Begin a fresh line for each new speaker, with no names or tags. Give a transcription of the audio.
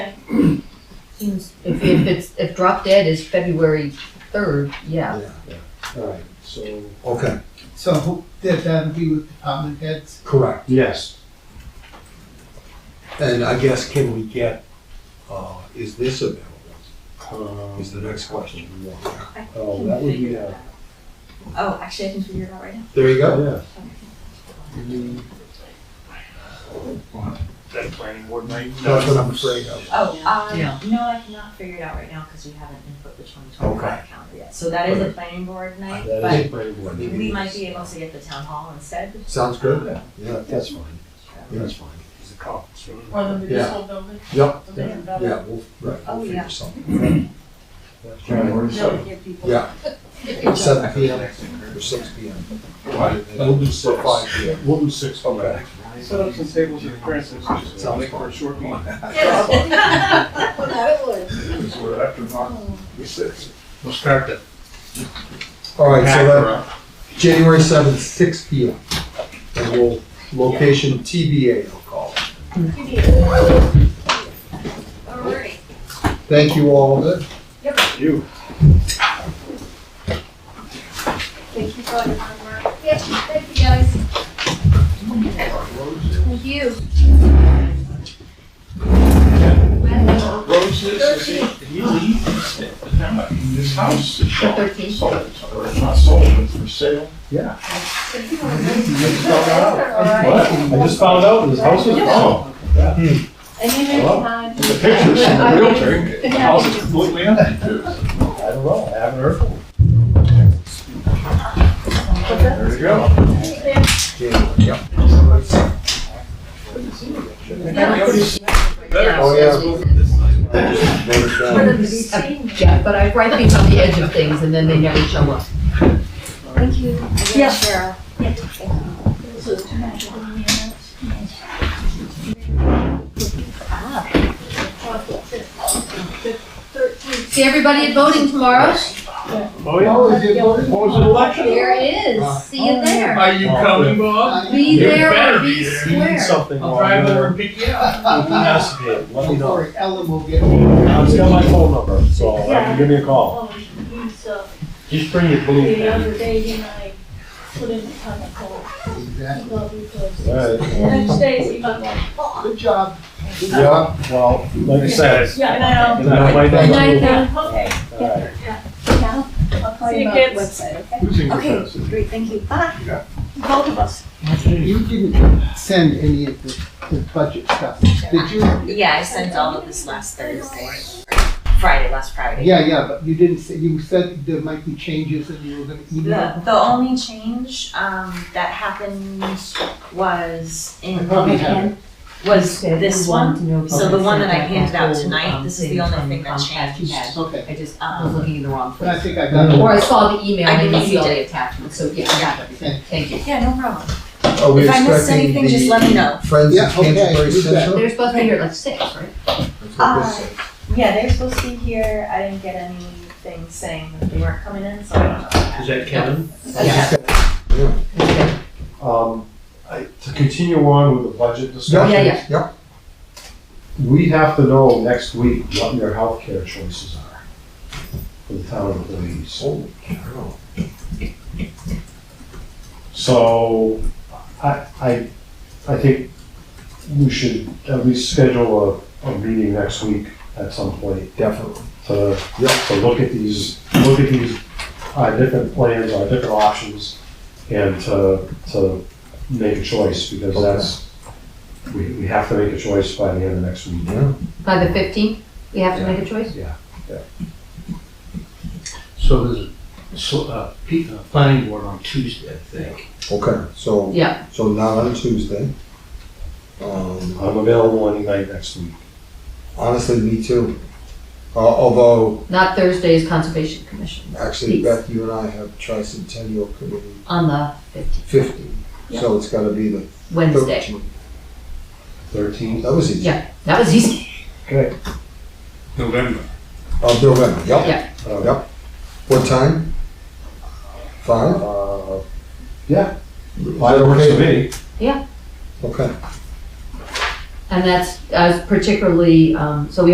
seems,
If, if it's, if drop dead is February third, yeah.
All right, so,
Okay,
So who- that that'd be with department heads?
correct.
yes,
And I guess can we get, uh, is this available?
um,
Is the next question.
I
Oh,
can
that would be
figure
a-
that out. Oh, actually, I can figure it out right now.
There you go.
yeah. Mm,
that planning board night?
That's what I'm afraid of.
Oh, um,
Yeah.
no, I cannot figure it out right now because we haven't input the 2025 calendar yet. So that is a planning board night,
That is a
but
pretty good.
But-
we might be able to get the town hall instead.
Sounds good? Yeah,
That's fine, that's fine.
It's a conference room.
or the municipal building,
yep,
the main building.
yeah, we'll, right,
Oh,
we'll
yeah.
figure something.
That's fine.
They'll give people.
Yeah, seven P M or six P M. We'll do six. Or five P M.
We'll do six.
Okay.
Set up some tables at Francis,
Sounds
make for a short meeting.
Well, that would.
We'll start the
All right, so
hacker
that,
up.
January seventh, six P M. And we'll, location T B A, I'll call it.
Alright.
Thank you all.
You.
Thank you for all your hard work. Yes, thank you guys. Thank you.
Roses, if you leave this house, is
The
sold.
thirteenth.
sold, or it's not sold, it's for sale.
What? I just found out this house was, oh,
And you may
Hello.
have.
The pictures from the realtor, the house is completely empty too.
I don't know, I haven't heard. from him.
There you go.
Yeah.
Better
Oh, yeah.
sales move this night.
Noted down.
Yeah, but I write things on the edge of things and then they never show up.
Thank you.
Yes.
Cheryl.
See everybody at voting tomorrow?
Oh, yeah. What was the election?
There it is. See you there.
Are you coming, Bob?
Be
You
there
better
or be
be there. You
Need
square.
Something.
I'll
wrong
drive
there.
over and pick you up.
It has to be. Let me
Don't
know.
worry, Ellen will get.
Now, It's got my phone number, so uh, give me a call.
Oh, he's, uh,
Just bring your blue
the
pen.
other day, he and I put in a ton of coal,
Exactly.
love you,
All
cause
right.
next day, he was like,
Good job.
Yeah.
Well, like I said.
yeah, and I, um,
good night, my
Good night,
dad.
now.
okay,
All right.
Yeah.
I'll call
See
you
you
about
kids.
the website, okay?
Who's in your
Okay,
house?
great, thank you. Bye.
Both of us.
You didn't send any of the, the budget stuff, did you?
Yeah, I sent all of this last Thursday, or Friday, last Friday.
Yeah, yeah, but you didn't say, you said there might be changes and you were gonna email.
The, the only change, um, that happened was in,
Probably haven't.
was this one. So the one that I handed out tonight,
Um,
this is the only thing that
Comcast
changed.
had.
Okay,
I just
Um,
was looking in the wrong
but I
place.
think I got
Or
it.
I saw the email
I
and I
believe
didn't see
you
all
did.
the attachments, so yeah, I got everything. Thank you.
Yeah, no problem.
Are we
If I missed
expecting
anything, just
the
let me know.
Friends
Yeah,
of
okay,
Canterbury
do that.
Central?
They're supposed to be here at like six, right?
That's what this is.
Yeah, they're supposed to be here. I didn't get anything saying that they weren't coming in, so I don't know. what happened.
Is that Kevin?
Yeah.
Um, I, to continue on with the budget
Yeah,
discussion.
Yeah, yeah.
yeah, yeah.
We have to know next week what your healthcare choices are for the town employees.
Holy cow.
So I, I, I think we should at least schedule a, a meeting next week at some point
Definitely.
to,
Yeah.
to look at these, look at these, uh, different plans, our different options and to, to make a choice because that's, we, we have to make a choice by the end of next week.
Yeah.
By the fifteenth, we have to make a choice?
So there's a, so, uh, pe- uh, planning board on Tuesday, I think.
Okay, so,
Yeah.
so not on Tuesday. Um,
I'm available any night next week.
honestly, me too. Uh, although,
Not Thursday's Conservation Commission,
actually,
Please.
Beth, you and I have tricentennial committee
on the fifteenth,
fifty, so it's gotta be the
Wednesday.
thirteenth.
Thirteenth,
That was easy.
Yeah. That was easy.
November.
Of November, yep.
uh,
What time? Five?
uh, yeah,
Is
five
that
works
okay?
for me.
Okay.
And that's, uh, particularly, um, so we